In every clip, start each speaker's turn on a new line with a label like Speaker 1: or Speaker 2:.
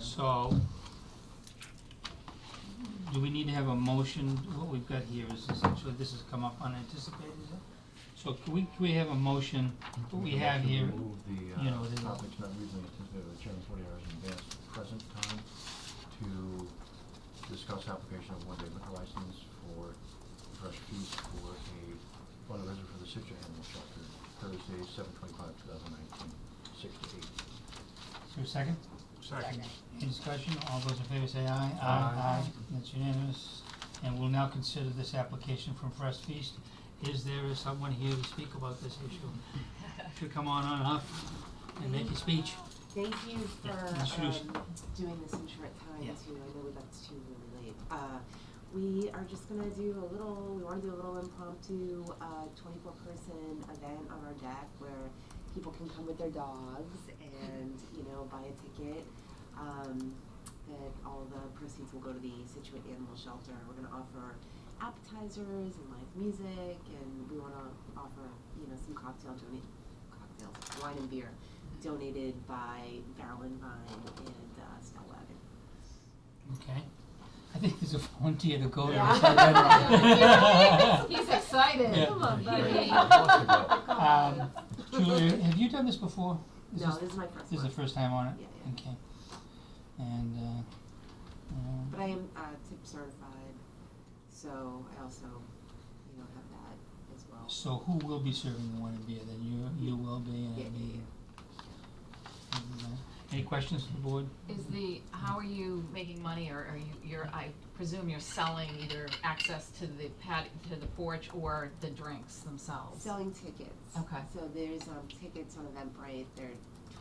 Speaker 1: so do we need to have a motion? What we've got here is essentially, this has come up unanticipated, is it? So can we, can we have a motion, what we have here,
Speaker 2: Move the,
Speaker 1: you know,
Speaker 2: uh,
Speaker 1: the-
Speaker 2: topics not reasonably anticipated by the chairman forty hours in advance of present time to discuss application of one-day liquor license for fresh feast for a fundraiser for the Citro Animal Shelter, Thursday, seven twenty-five, two thousand nineteen, six to eight.
Speaker 1: is there a second?
Speaker 3: Second.
Speaker 1: Any discussion? All those in favor say aye.
Speaker 2: Aye.
Speaker 1: That's unanimous. And we'll now consider this application from Fresh Feast. Is there someone here to speak about this issue? Should come on on up and make a speech.
Speaker 4: Thank you for
Speaker 1: Yeah, introduce.
Speaker 4: um, doing this in short time
Speaker 1: Yeah.
Speaker 4: too. I know that's too really late. Uh, we are just gonna do a little. We want to do a little impromptu uh, 24 person event on our deck where people can come with their dogs and you know buy a ticket. Um, that all the proceeds will go to the Situate Animal Shelter. We're gonna offer appetizers and live music, and we want to offer you know some cocktail donate cocktails, wine and beer donated by Marilyn Vine and uh, Stella Wagon.
Speaker 1: Okay. I think there's a volunteer to go there.
Speaker 4: Yeah.
Speaker 1: Is that
Speaker 5: He's excited.
Speaker 1: Yeah.
Speaker 5: Come on, buddy.
Speaker 1: right? Um, Julia, have you done this before?
Speaker 4: no, this, is my first
Speaker 1: This is
Speaker 4: one.
Speaker 1: the first time on it?
Speaker 4: Yeah, yeah.
Speaker 1: Okay. And, uh, um,
Speaker 4: But I am uh, tip certified, so I also, you know, have that as well.
Speaker 1: So who will be serving the wine and beer then? You, you will be and
Speaker 4: Yeah,
Speaker 1: it'll
Speaker 4: yeah,
Speaker 1: be. and, uh, Any questions from the board?
Speaker 5: Is the, how are you making money, or are you, you're, I presume you're selling either access to the pad, to the porch or the drinks themselves?
Speaker 4: Selling tickets.
Speaker 5: Okay.
Speaker 4: So there's um, tickets on Eventbrite. They're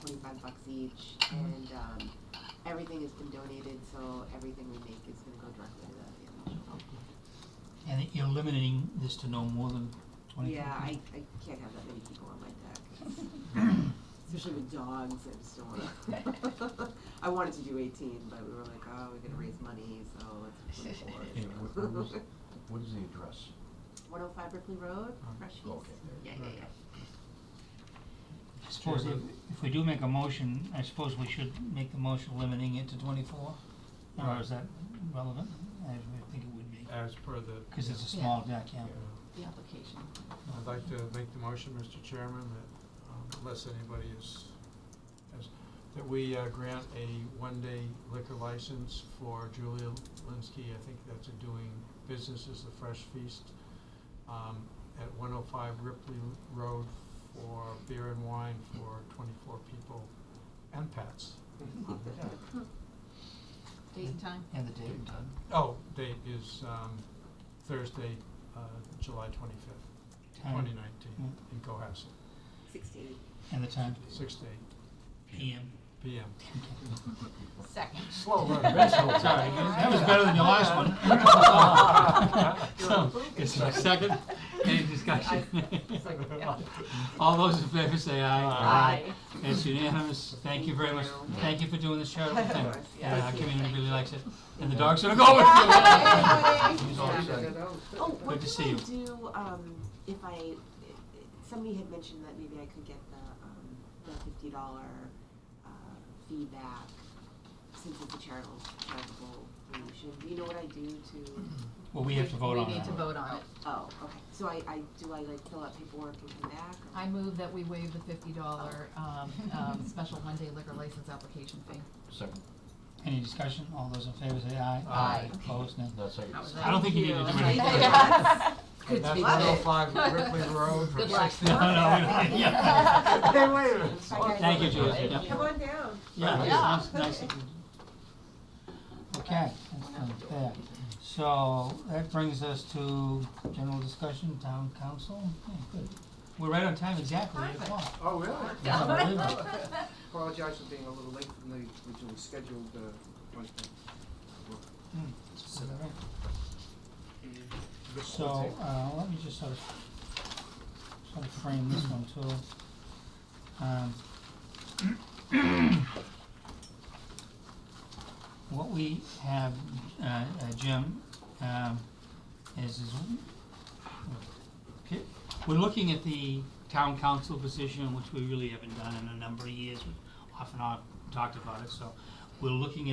Speaker 4: twenty-five bucks each, and um, everything has been donated. So everything we make is going to go directly to the animal shelter.
Speaker 1: And you're limiting this to no more than twenty
Speaker 4: Yeah, I,
Speaker 1: people?
Speaker 4: I can't have that many people on my deck. Especially with dogs, I just don't wanna. I wanted to do eighteen, but we were like, oh, we're gonna raise money, so let's put
Speaker 2: Hey, what, what was,
Speaker 4: it
Speaker 2: what is the address?
Speaker 4: One oh five Ripley Road, Fresh East.
Speaker 2: Oh, okay,
Speaker 4: Yeah,
Speaker 2: there
Speaker 4: yeah, yeah.
Speaker 1: I suppose if, if we do make a motion, I suppose we should make the motion limiting it to twenty-four? Or is that relevant? I would think it would be,
Speaker 6: As per the,
Speaker 1: cause it's a
Speaker 5: Yeah.
Speaker 1: small deck, yeah.
Speaker 6: yeah.
Speaker 5: The application.
Speaker 6: I'd like to make the motion, Mr. Chairman, that um, unless anybody is, has, that we uh, grant a one-day liquor license for Julia Linsky, I think that's a doing business as the Fresh Feast, um, at one oh five Ripley Road for beer and wine for twenty-four people and pets.
Speaker 5: Date and time?
Speaker 1: And the date and time.
Speaker 6: Oh, date is, um, Thursday, uh, July twenty-fifth,
Speaker 1: Time.
Speaker 6: twenty nineteen, in Cohasset.
Speaker 4: Sixteen.
Speaker 1: And the time,
Speaker 6: Six to eight
Speaker 1: PM.
Speaker 6: PM.
Speaker 5: Second.
Speaker 6: Slow run, very slow.
Speaker 1: Sorry, that was better than your last one. So, is there a second? Any discussion? All those in favor say aye.
Speaker 5: Aye.
Speaker 1: It's unanimous. Thank you very much. Thank you for doing this charitable thing.
Speaker 4: Of course,
Speaker 1: Yeah,
Speaker 4: yeah.
Speaker 1: Our community really likes it. And the dogs are
Speaker 2: Oh,
Speaker 1: going with
Speaker 2: He's all excited.
Speaker 4: Oh, what
Speaker 1: to
Speaker 4: did
Speaker 1: see
Speaker 4: I
Speaker 1: you.
Speaker 4: do, um, if I, somebody had mentioned that maybe I could get the, um, the fifty dollar, uh, feedback since it's a charitable, charitable donation, do you know what I do to,
Speaker 1: you. Well, we have to vote on
Speaker 5: We need to
Speaker 1: that.
Speaker 5: vote on it.
Speaker 4: oh, okay, so I, I, do I like fill out paperwork and come back? or-
Speaker 5: I move that we waive the fifty dollar, um, um, special one-day liquor license application fee.
Speaker 2: Second,
Speaker 1: Any discussion? All those in favor say aye.
Speaker 6: Aye.
Speaker 1: Opposed, nay.
Speaker 2: no, second.
Speaker 5: That was
Speaker 1: I don't think you need to do
Speaker 5: Thank
Speaker 1: anything.
Speaker 5: you. Good
Speaker 6: That's
Speaker 5: speech.
Speaker 6: one oh five Ripley Road for
Speaker 5: Good luck.
Speaker 6: six.
Speaker 1: No, no, we don't- yeah. Thank you, Julie.
Speaker 6: Thank
Speaker 1: Yeah.
Speaker 4: Come on down.
Speaker 1: Yeah,
Speaker 5: Yeah.
Speaker 1: it's nice, nice. of you. Okay, that's done there. So that brings us to general discussion, town council. Yeah, good. We're right on time, exactly, eight o'clock.
Speaker 7: Oh, really?
Speaker 1: Yeah, unbelievable.
Speaker 7: Apologize for being a little late from the originally scheduled, uh, one thing.
Speaker 1: Hmm. Is that right? So, uh, let me just sort of, sort of frame this one too. Um, What we have, uh, uh, Jim, um, is, is, okay, we're looking at the town council position, which we really haven't done in a number of years. We've Off and on talked about it, so we're looking at